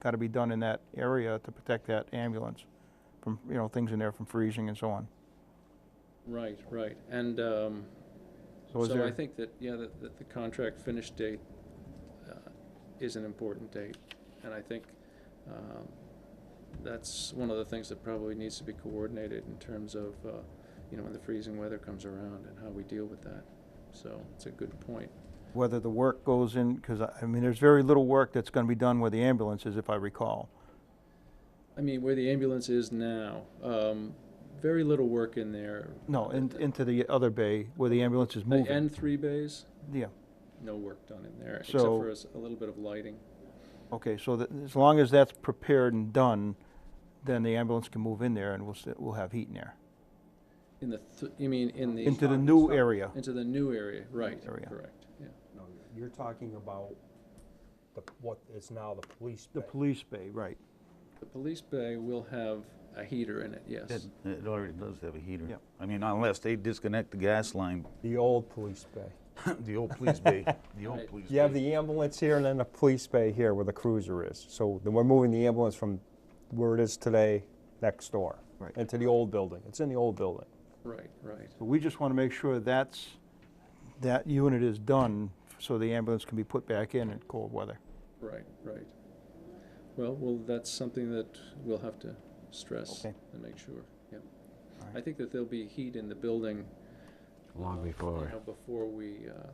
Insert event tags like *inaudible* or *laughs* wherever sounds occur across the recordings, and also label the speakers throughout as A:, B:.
A: got to be done in that area to protect that ambulance from, you know, things in there from freezing and so on.
B: Right, right. And um,
A: So is
B: so I
A: there,
B: think that, yeah, that that the contract finish date uh, is an important date. And I think um, that's one of the things that probably needs to be coordinated in terms of, uh, you know, when the freezing weather comes around and how we deal with that. So it's a good point.
A: whether the work goes in, because I I mean, there's very little work that's going to be done where the ambulance is, if I recall.
B: I mean, where the ambulance is now, um, very little work in there.
A: No, in,
B: Uh,
A: into the other bay where the ambulance is
B: The
A: moving.
B: end three bays,
A: Yeah,
B: no work done in there, except
A: So-
B: for a s- a little bit of lighting.
A: okay, so that, as long as that's prepared and done, then the ambulance can move in there and we'll, sit- we'll have heat in there.
B: In the, th- you mean in the?
A: Into the
C: Stop,
A: new
C: stop.
A: area.
B: Into the new area, right,
A: Area.
B: correct, yeah.
C: No, you're talking about the, what is now the police
A: The
C: bay.
A: police bay, right.
B: The police bay will have a heater in it,
D: It,
B: yes.
D: it already does have a heater.
A: Yep.
D: I mean, unless they disconnect the gas line, *laughs*
C: The old police bay.
D: the old police bay, *laughs* the
B: Right.
D: old police
C: You have
D: bay.
C: the ambulance here and then the police bay here where the cruiser is. So then we're moving the ambulance from where it is today, next door.
A: Right.
C: Into the old building. It's in the old building.
B: Right, right,
A: So we just want to make sure that's, that unit is done so the ambulance can be put back in in cold weather.
B: right, right. Well, well, that's something that we'll have to stress
A: Okay.
B: and make sure, yeah.
A: All right.
B: I think that there'll be heat in the building.
E: Long
B: uh, you
E: before.
B: know, Before we uh,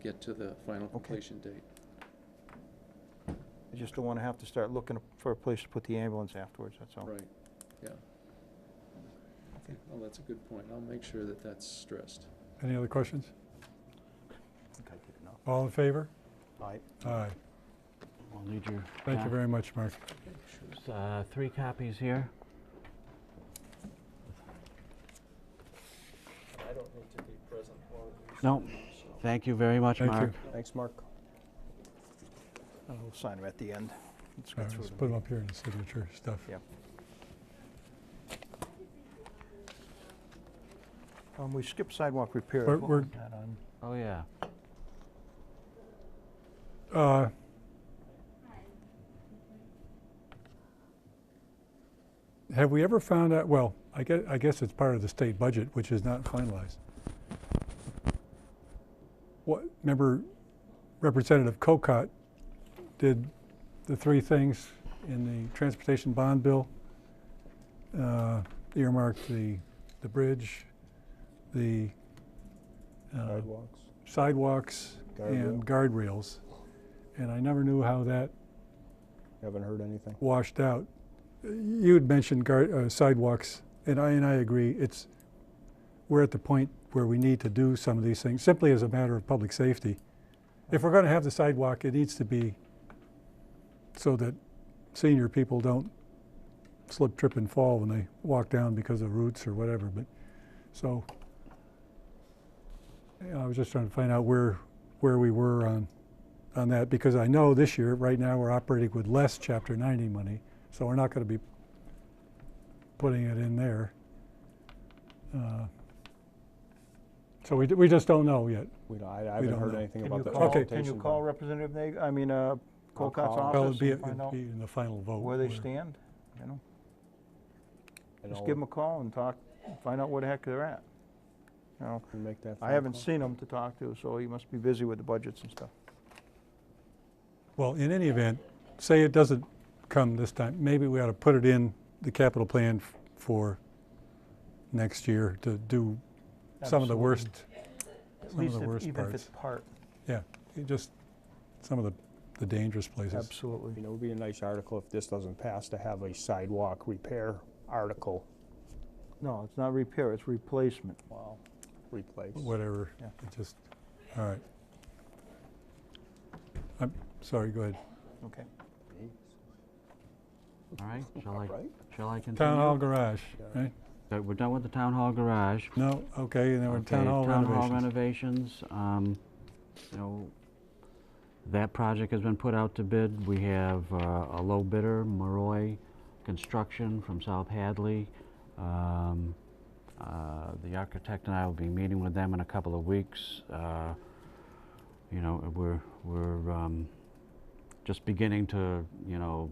B: get to the final completion date.
A: I just don't want to have to start looking for a place to put the ambulance afterwards, that's all.
B: Right, yeah. Okay, well, that's a good point. I'll make sure that that's stressed.
F: Any other questions?
A: I think I did enough.
F: All in favor?
A: All right.
F: Aye.
E: We'll need your.
F: Thank you
E: cop-
F: very much, Mark.
E: Uh, three copies here.
B: I don't need to be present while
E: No, thank you very much,
F: Thank you.
E: Mark.
C: Thanks, Mark.
A: We'll sign them at the end. Let's
F: All
A: get
F: right,
A: through
F: Let's
A: them.
F: Uh, put them up here in the signature stuff.
A: Yep. Um, we skipped sidewalk repair.
F: We're-
A: What
F: we're-
A: was that on?
E: Oh, yeah.
F: Uh, Have we ever found out, well, I guess, I guess it's part of the state budget, which is not finalized. What, remember Representative Cocott did the three things in the transportation bond bill? Uh, Earmarked the, the bridge, the uh,
C: Sidewalks.
F: sidewalks and guardrails. And I never knew how that
C: Haven't heard anything.
F: washed out. You had mentioned guard, uh, sidewalks, and I and I agree. It's we're at the point where we need to do some of these things simply as a matter of public safety. If we're going to have the sidewalk, it needs to be so that senior people don't slip, trip, and fall when they walk down because of roots or whatever. But so you know, I was just trying to find out where where we were on on that because I know this year, right now, we're operating with less Chapter 90 money, so we're not going to be putting it in there. Uh, So we, d- we just don't know yet.
C: We don't, I I
F: We
C: haven't
F: don't
C: heard
F: know.
C: anything
A: Can
C: about
A: you
C: the
A: call-
F: Okay.
C: transportation.
A: Can you
C: bond.
A: call Representative Nag, I mean, uh, Colcott's
C: call him.
F: Well, it'd
A: office
F: be,
A: and
F: it'd
A: find out
F: be in the final vote.
A: where they
F: where-
A: stand, you know?
C: And
A: Just
C: I'll
A: give them a call and talk, find out where the heck they're at. You know,
C: Make that.
A: I
C: phone
A: haven't
C: call.
A: seen him to talk to, so he must be busy with the budgets and stuff.
F: Well, in any event, say it doesn't come this time, maybe we ought to put it in the capital plan f- for next year to do some of the
A: Absolutely.
F: worst,
A: At
F: some of
A: least
F: the
A: if-
F: worst
A: even if it's
F: parts.
A: part.
F: Yeah, it just some of the, the dangerous places.
C: You
A: Absolutely.
C: know, it would be a nice article if this doesn't pass to have a sidewalk repair article.
A: No, it's not repair, it's replacement.
C: Wow. Replace.
F: whatever,
A: Yeah.
F: it just, all right. I'm sorry, go ahead.
A: Okay.
E: All right, shall I,
C: Right?
E: shall I continue?
F: Town Hall garage, right?
E: So We're done with the town hall garage.
F: No, okay, and then we're town
E: Okay,
F: hall
E: Town hall
F: renovations.
E: renovations, um, you know, that project has been put out to bid. We have uh, a low bidder, Maroy Construction from South Hadley. Um, uh, The architect and I will be meeting with them in a couple of weeks. Uh, You know, we're, we're um, just beginning to, you know,